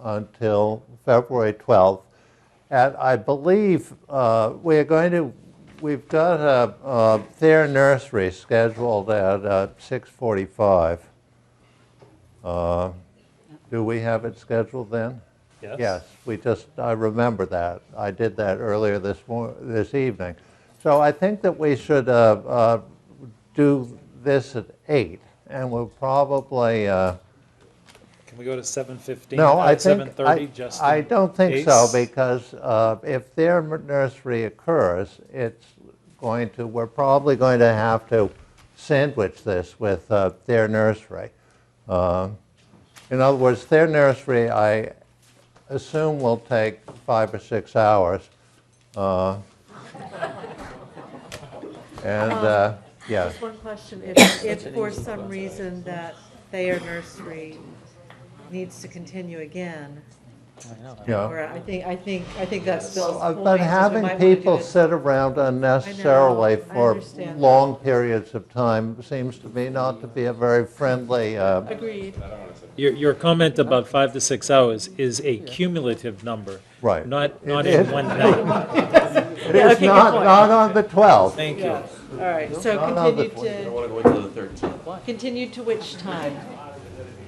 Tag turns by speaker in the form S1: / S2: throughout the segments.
S1: until February 12th. And I believe uh, we are going to, we've got a uh, Thayer Nursery scheduled at uh, 6:45. Uh, Do we have it scheduled then?
S2: Yes.
S1: Yes, we just, I remember that. I did that earlier this mor, this evening. So I think that we should uh, uh, do this at eight, and we'll probably, uh,
S2: Can we go to seven fifteen? Uh,
S1: no, I think,
S2: Seven thirty,
S1: I
S2: just.
S1: I
S2: in
S1: don't think so,
S2: case?
S1: because uh, if their nursery occurs, it's going to, we're probably going to have to sandwich this with uh, their nursery. Uh, In other words, their nursery, I assume will take five or six hours. Uh, And, uh, yeah,
S3: Just one question, if, if for some reason that Thayer Nursery needs to continue again,
S1: yeah.
S3: or I think, I think, I think that's Bill's
S1: Uh,
S3: point.
S1: But
S3: is we
S1: having
S3: might wanna do
S1: people
S3: it-
S1: sit around unnecessarily
S3: I
S1: for
S3: understand that.
S1: long periods of time seems to me not to be a very friendly, uh,
S3: Agreed,
S2: Your, your comment about five to six hours is a cumulative number.
S1: Right.
S2: Not, not
S1: It-
S2: in one night.
S1: it is
S3: Yeah, okay, good
S1: not,
S3: point.
S1: not on the 12th.
S2: Thank you.
S3: yeah, all right, so
S1: Not on the
S3: continue
S1: point.
S4: I
S3: to,
S4: want to go into the 13th.
S3: continue to which time?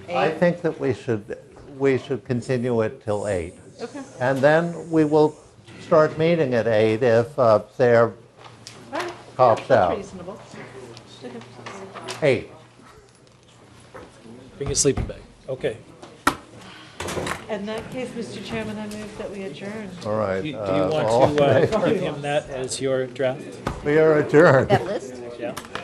S1: I
S3: Eight?
S1: think that we should, we should continue it till 8.
S3: Okay,
S1: And then we will start meeting at 8 if uh, they're
S3: all right.
S1: Cops
S3: That's
S1: out.
S3: Reasonable. Okay.
S1: 8.
S2: Bring your sleeping bag. Okay.
S3: In that case, Mr. Chairman, I move that we adjourn.
S1: All right.
S2: Do you do you
S1: uh,
S2: want
S1: all-
S2: to uh, give him that as your draft?
S1: We are adjourned.
S5: That list?
S2: Yeah.